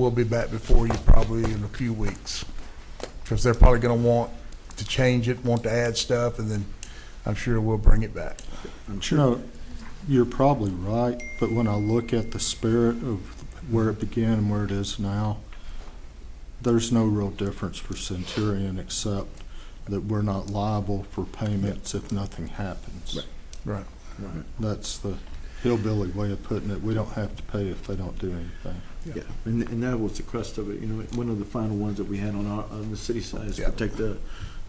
We'll be back before you probably in a few weeks, because they're probably gonna want to change it, want to add stuff, and then I'm sure we'll bring it back. I'm sure. You're probably right, but when I look at the spirit of where it began and where it is now, there's no real difference for Centurion except that we're not liable for payments if nothing happens. Right. Right. Right. That's the hillbilly way of putting it. We don't have to pay if they don't do anything. Yeah, and, and that was the crust of it, you know, one of the final ones that we had on our, on the city side is Yeah. protect the,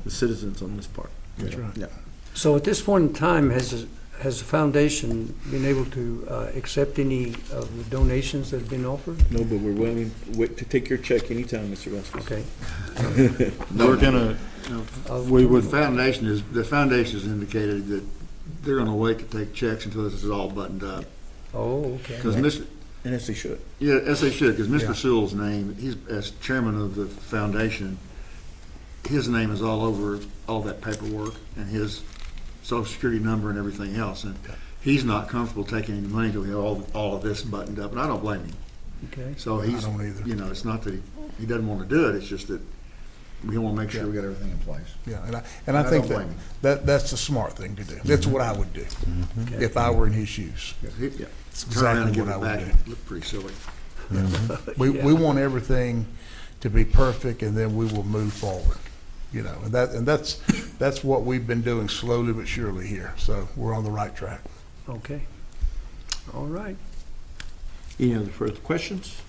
the citizens on this part. That's right. Yeah. So at this point in time, has, has the foundation been able to uh, accept any of the donations that have been offered? No, but we're willing, wait to take your check anytime, Mr. Vasquez. Okay. We're gonna, I'll- we The would, foundation is, the foundation's indicated that they're gonna wait to take checks until this is all buttoned up. Oh, okay. Because Mr., And as they should. yeah, as they should, because Yeah. Mr. Sewell's name, he's, as chairman of the foundation, his name is all over all that paperwork and his social security number and everything else. And he's not comfortable taking any money until we have all, all of this buttoned up, and I don't blame him. Okay. So he's, don't either. you know, it's not that he, he doesn't want to do it, it's just that we want to make sure we got everything in place. Yeah, and I, and I I think don't that, blame you. that, that's the smart thing to do. That's what I would do Okay. if I were in his shoes. He- Yeah. Mm-hmm. Turn around and exactly give what I it would back, do. it'd look pretty silly. We, we Yeah. want everything to be perfect and then we will move forward, you know, and that, and that's, that's what we've been doing slowly but surely here. So we're on the right track. Okay. All right. Any other further questions?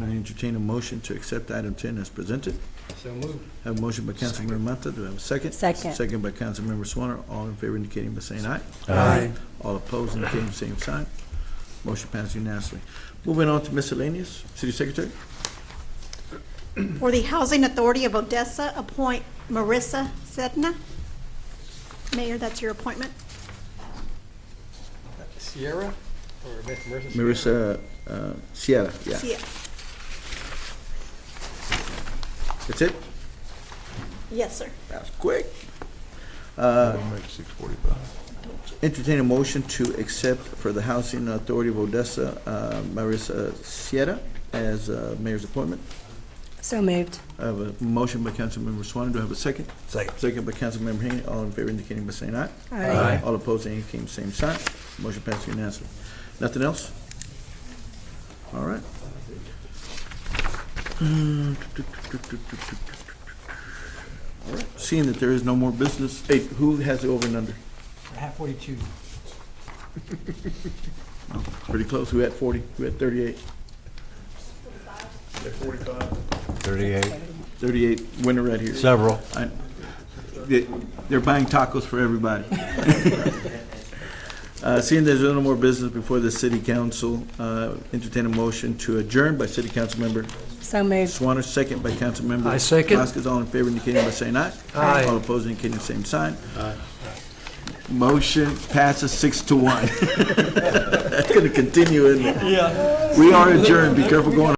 I entertain a motion to accept item ten as presented. So moved. Have a motion by Councilmember Mata, do I have a second? Second. Second by Councilmember Swanner, all in favor indicating by saying aye. Aye. All opposed indicating the same sign. Motion passed unanimously. Moving on to miscellaneous, City Secretary? For the Housing Authority of Odessa, appoint Marissa Sedna. Mayor, that's your appointment. Sierra or Miss Marissa? Sierra? Marissa uh, Sierra, yeah. See- That's it? Yes, sir. That's quick. Uh, Make six forty-five. Entertain a motion to accept for the Housing Authority of Odessa, uh, Marissa Sierra as uh, mayor's appointment. So moved. I have a motion by Councilmember Swann. Do I have a second? Second. Second by Councilmember Haney. All in favor indicating by saying aye. Aye. All opposed indicating same sign. Motion passed unanimously. Nothing else? All right. All right. Seeing that there is no more business, hey, who has the over and under? I have forty-two. Oh, Pretty close. Who had forty? Who had thirty-eight? Thirty-eight, Thirty-eight winner right here. several. I- they- They're buying tacos for everybody. Uh, Seeing there's no more business before the city council, uh, entertain a motion to adjourn by city council member So moved. Swanner, second by council member. I second. Vasquez, all in favor indicating by saying aye. Aye. All opposed indicating the same sign. Motion passes six to one. That's going to continue, isn't it? Yeah. We are adjourned. Be careful going